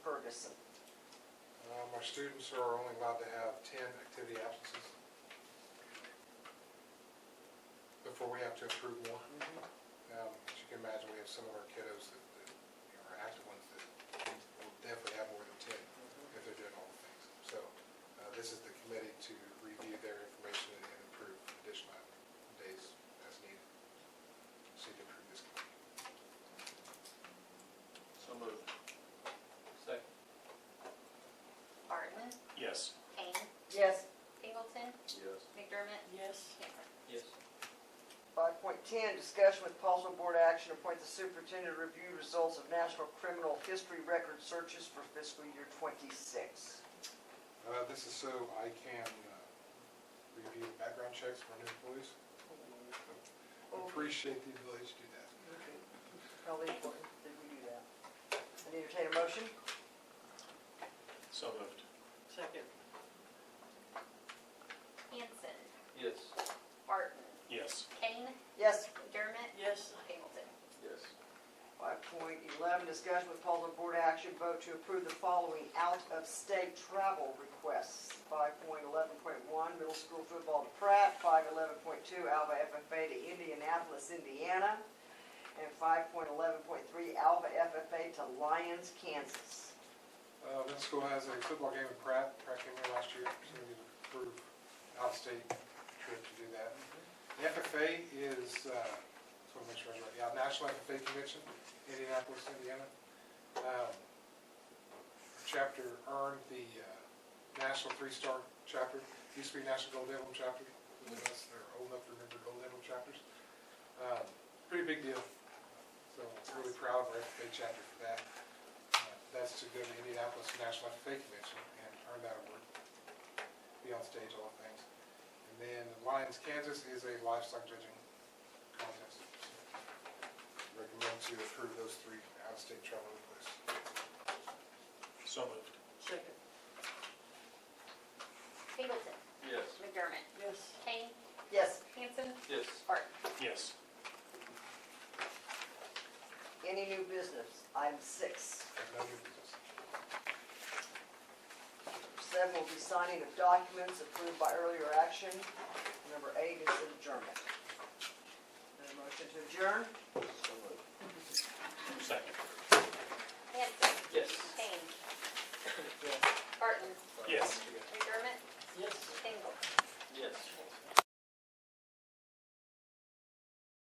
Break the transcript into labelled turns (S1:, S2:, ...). S1: person.
S2: Um, Our students are only allowed to have 10 activity absences before we have to approve more. Um, As you can imagine, we have some of our kiddos that, that, you know, are active ones that will definitely have more than 10 if they're doing all the things. So uh, this is the committee to review their information and approve additional days as needed. So you can approve this committee.
S3: So moved. Second.
S4: Barton,
S5: Yes.
S4: Kane,
S1: Yes.
S4: Pingleton,
S3: Yes.
S4: McDermott,
S1: Yes.
S4: Camper.
S3: Yes.
S6: Five point ten, discussion with possible board action, appoint the superintendent to review results of national criminal history record searches for fiscal year twenty-six.
S2: Uh, This is so I can uh, review the background checks for new employees. Appreciate the ability to do that.
S6: Probably important that we do that. I entertain a motion?
S5: So moved.
S6: Second.
S4: Hanson,
S3: Yes.
S4: Barton,
S5: Yes.
S4: Kane,
S6: Yes.
S4: McDermott,
S6: Yes.
S4: Pingleton.
S3: Yes.
S6: Five point eleven, discussion with possible board action, vote to approve the following out-of-state travel requests. Five point eleven point one, middle school football to Pratt. Five eleven point two, Alva FFA to Indianapolis, Indiana. And five point eleven point three, Alva FFA to Lyons, Kansas.
S2: Uh, Middle school has a football game in Pratt, Pratt came here last year, so we need to approve out-of-state trip to do that. The FFA is, uh, just want to make sure I get it right, yeah, National FFA Convention, Indianapolis, Indiana. Um, Chapter earned the uh, National Three Star Chapter, used to be National Gold Emblem Chapter, unless they're old enough to remember Gold Emblem chapters. Um, Pretty big deal, so really proud of our FFA chapter for that. That's to go to Indianapolis National FFA Convention and earn that award, be on stage, all the things. And then Lions Kansas is a livestock judging contest. So Recommend to approve those three out-of-state travel requests.
S5: So moved.
S6: Second.
S4: Pingleton,
S3: Yes.
S4: McDermott,
S6: Yes.
S4: Kane,
S6: Yes.
S4: Hanson,
S3: Yes.
S4: Barton.
S5: Yes.
S6: Any new business? Item six.
S2: No new business.
S6: Seven will be signing of documents approved by earlier action. Number eight is adjournment. Is there a motion to adjourn?